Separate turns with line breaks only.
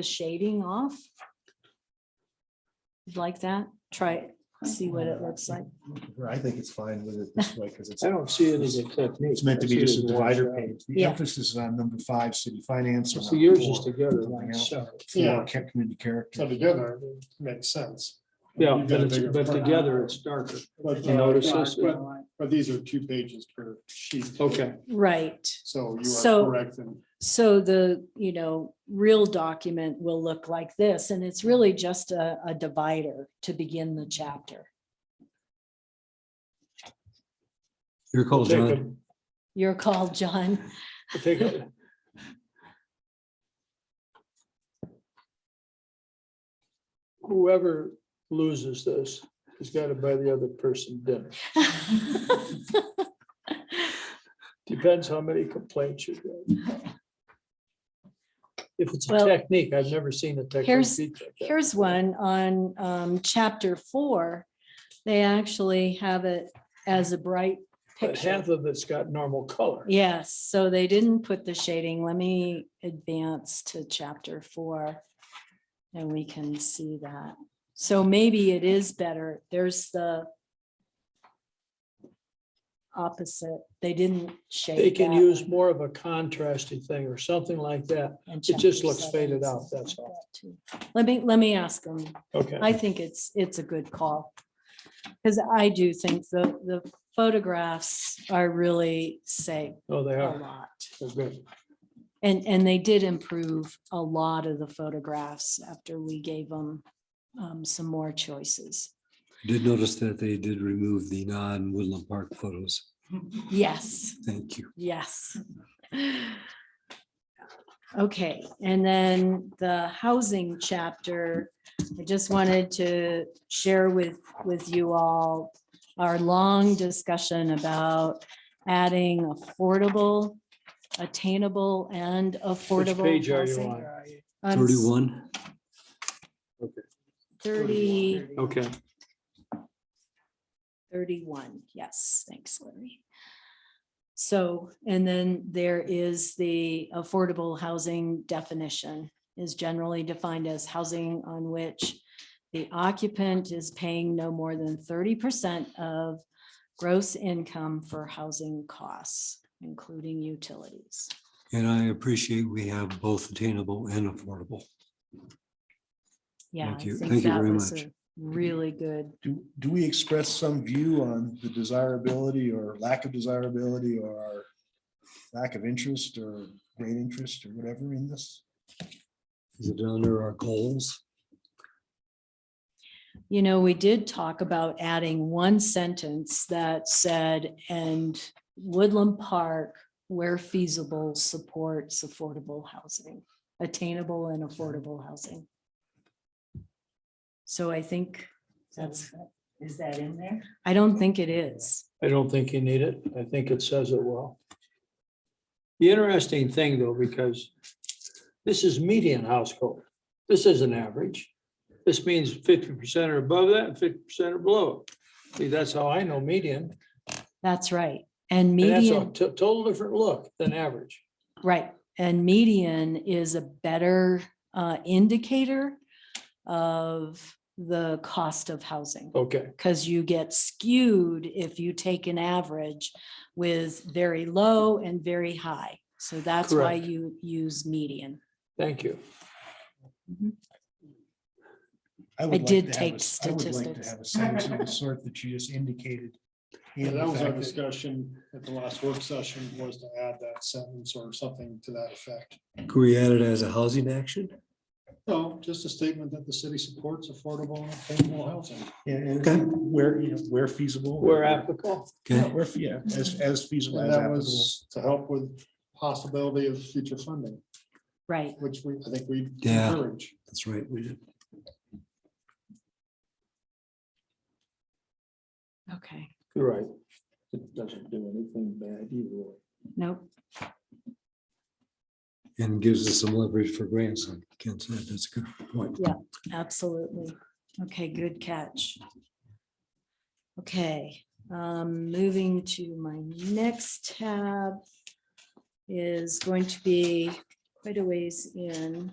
the shading off. You'd Like that, try, it, see what it looks like.
I think it's fine with it this way because it's,
I don't see it as a technique.
it's meant to be
I see it
just a
as
divider
shot.
page. The
Yeah.
emphasis is on number five, city finance. and
So yours is
four,
together,
something
like
else.
so.
Four, kept community character.
So together, it makes sense.
Yeah,
You've
but
got a
it's,
bigger
but
print.
together it's darker.
But,
You notice
uh,
this?
but, but these are two pages per sheet.
Okay,
Right,
So you
So-
are correct and
so the, you know, real document will look like this, and it's really just a, a divider to begin the chapter.
Your call,
Take
John.
You're called, John.
take it. Whoever loses this has got to buy the other person dinner. Depends how many complaints you get. If it's a
Well,
technique, I've never seen a technique.
here's-
beat like that.
Here's one on um, chapter four. They actually have it as a bright
But
picture.
half of it's got normal color.
Yes, so they didn't put the shading. Let me advance to chapter four. And we can see that. So maybe it is better. There's the opposite. They didn't shade.
They can
that
use
one
more of a contrasting thing or something like that.
in
it just
chapter
looks
seven,
faded out,
something
that's
like
all.
that too. Let me, let me ask them.
Okay.
I think it's, it's a good call. Because I do think the, the photographs are really say
Oh, they
a
are.
lot.
They're good.
And, and they did improve a lot of the photographs after we gave them um, some more choices.
Did notice that they did remove the non-Woodland Park photos.
Yes,
Thank you.
yes. Okay, and then the housing chapter, I just wanted to share with, with you all our long discussion about adding affordable, attainable and
Which
affordable.
page are you
housing.
on?
I'm s-
Thirty-one.
Thirty.
Okay.
31, yes, thanks Larry. So, and then there is the affordable housing definition is generally defined as housing on which the occupant is paying no more than 30% of gross income for housing costs, including utilities.
And I appreciate we have both attainable and affordable.
Yeah.
Thank
I
you.
think
Thank you
that
very
was
much.
a Really good.
Do, do we express some view on the desirability or lack of desirability or lack of interest or great interest or whatever in this?
Is it under our goals?
You know, we did talk about adding one sentence that said, and Woodland Park, where feasible, supports affordable housing, attainable and affordable housing. So I think that's,
Is that in there?
I don't think it is.
I don't think you need it. I think it says it well. The interesting thing though, because this is median household. This isn't average. This means fifty percent are above that and fifty percent are below it. See, that's how I know median.
That's right. And
And that's a
median,
to- total different look than average.
right, and median is a better uh, indicator of the cost of housing.
Okay,
because you get skewed if you take an average with very low and very high. So that's why
Correct.
you use median.
thank you.
I
would like
did
to have
take
a s- I would like to
statistics.
have a sentence of the sort that you just indicated.
Yeah,
in
that
the
was our
fact that-
discussion at the last work session was to add that sentence or something to that effect.
Could we add it as a housing action?
No, just a statement that the city supports affordable and affordable housing.
And
Okay.
and where, you know, where feasible.
Where applicable.
Yeah,
Okay,
Where, yeah, as, as feasible.
And
as
that
applicable.
was to help with possibility of future funding,
Right.
which we, I think we
Yeah.
encourage.
that's right. We did.
Okay.
You're right. It doesn't do anything bad either way.
Nope.
And gives us some leverage for grants. I can't say that's a good point.
Absolutely. Okay, good catch. Okay, um, moving to my next tab is going to be quite a ways in.